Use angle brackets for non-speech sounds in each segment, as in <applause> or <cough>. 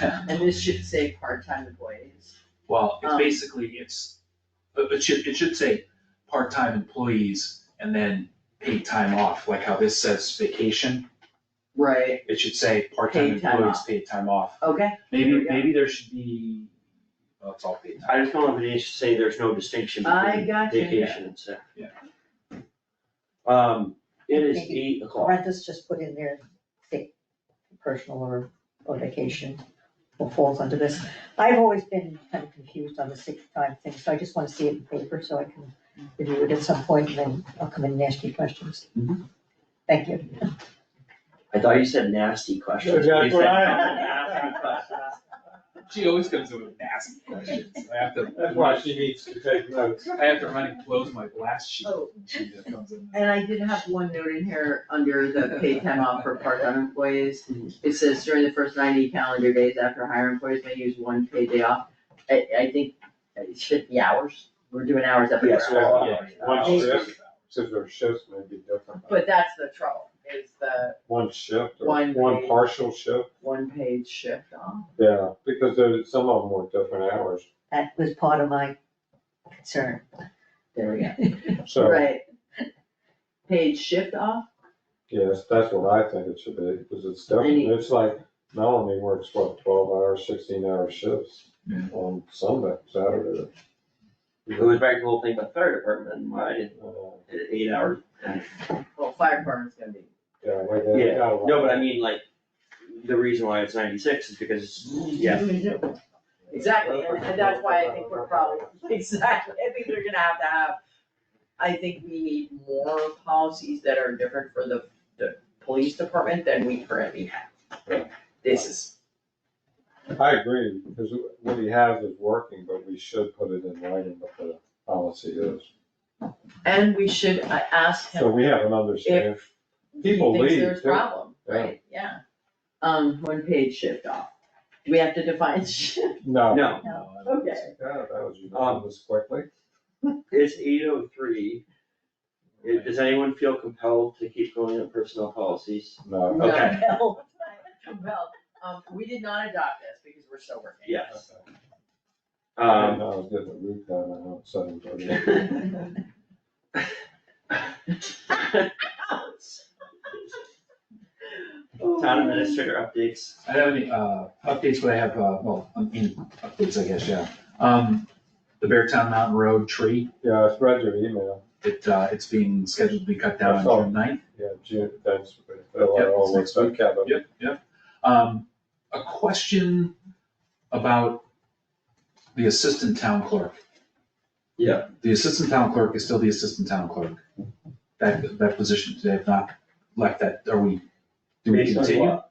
And this should say part-time employees. Well, it's Um. basically, it's, it it should, it should say part-time employees and then paid time off, like how this says vacation. Right. It should say part-time Paid time employees, paid time off. Okay, There Maybe, we go. maybe there should be, well, it's all paid I time. just don't want to say there's no distinction I between gotcha. vacation and sick. Yeah. Um, it is Maybe eight o'clock. Rentas just put in their sick, personal or, or vacation, or falls under this. I've always been kind of confused on the sick time thing, so I just wanna see it in paper so I can review it at some point, and then I'll come in and ask you questions. Thank you. I thought you said nasty questions. That's You what said I- nasty questions. She always comes in with nasty questions. I have to. That's why she needs to take notes. I have to run and close my blast sheet. Oh. She just comes in. <laughs> and I did have one note in here under the paid time off for part-time employees. It says during the first ninety calendar days after hire employees may use one paid day off. I, I think it's fifty hours, we're doing hours everywhere. Yes, well, Yeah. One Maybe. shift, since their shifts may be different. But that's the trouble, is the One shift or One one pay. partial shift, one paid shift off. yeah, because there, some of them were different hours, That was part of my concern. <laughs> There we go. so, Right. Paid shift off, yes, that's what I think it should be, because it's different, Any- it's like Melanie works, what, twelve hour, sixteen hour shifts Yeah. on Sunday, Saturday. It goes back to the whole thing about fire department, and why did Uh, it eight hours? well, fire department's gonna be, Yeah, like that. Yeah, No, but I mean, like, the reason why it's ninety-six is because, yeah, exactly, and, and that's why I think we're probably, <laughs> exactly, I think we're gonna have to have. I think we need more policies that are different for the, the police department than we currently have. This is, I agree, because what he has is working, but we should put it in writing what the policy is. and we should uh, ask him. So we have an understanding. People He thinks leave, there's too. problem, Yeah. right, yeah. Um, one page shift off, do we have to define <laughs> shift? No. Um, no, No, I don't think Okay. so. God, that was unanimous quickly. it's eight oh three. Does anyone feel compelled to keep going on personnel policies? No. No. Okay. Well, um, we did not adopt this because we're still working. Yes. I Um, was getting the root down, I know, seven thirty. town administrator updates. I don't have any, uh, updates, but I have, uh, well, I mean, updates, I guess, yeah. Um, the Beartown Mountain Road tree, <laughs> Yeah, I read your email, it, uh, it's being scheduled to be cut down I on saw. June ninth. yeah, June, thanks. for that. Yep, Oh, it's next what's up, week. Kevin? Yep, yep. Um, a question about the assistant town clerk. Yeah. The assistant town clerk is still the assistant town clerk. That, that position, they have not left that, are we, do we Based on continue? what?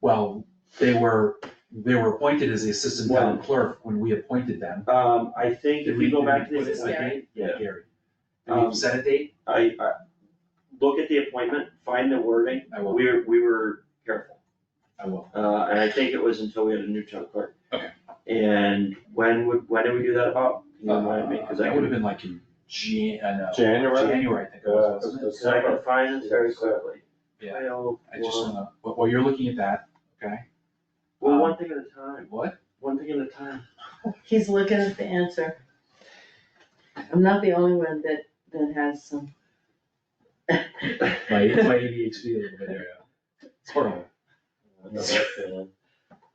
Well, they were, they were appointed as the assistant town clerk when we appointed them. Um, I think if we go back to Did we this, put a date? yeah, Gary. Did Um, we set a date? I, I, look at the appointment, find the wording, I will, we were, we were careful. I will. Uh, and I think it was until we had a new town clerk. Okay. And when would, when did we do that about? Can you remind me, cause I That would have Uh, could, been like in Jan, uh, I know. January? January, I think it was, wasn't it? Yeah, cause I can find this very Yes, sir. quickly. Yeah. I don't I just want- wanna, wh- while you're looking at that, okay, Well, um, one thing at a time, what? one thing at a time. He's looking at the answer. I'm not the only one that, that has some. My, my ADHD a little bit there, yeah. Sort of. I know that feeling.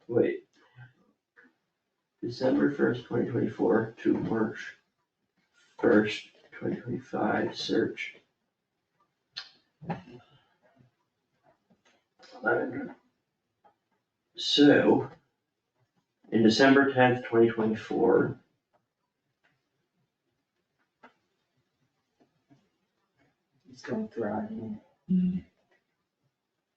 Wait. December first, twenty twenty-four to March first, twenty twenty-five, search. So, in December tenth, twenty twenty-four. He's going through it.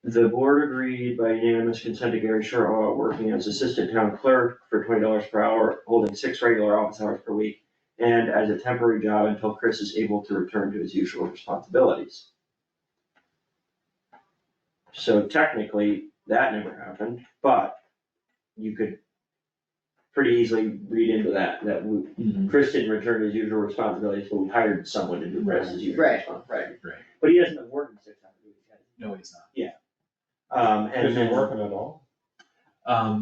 The board agreed by unanimous consent to Gary Sherrill working as assistant town clerk for twenty dollars per hour, holding six regular office hours per week, and as a temporary job until Chris is able to return to his usual responsibilities. So technically, that never happened, but you could pretty easily read into that, that we, Mm-hmm. Chris didn't return to his usual responsibilities, but we hired someone to do Chris's usual Right, responsibilities. right. Right. But he hasn't been working six hours a week, has he? No, he's not. Um, and Is then. it working at all? Um,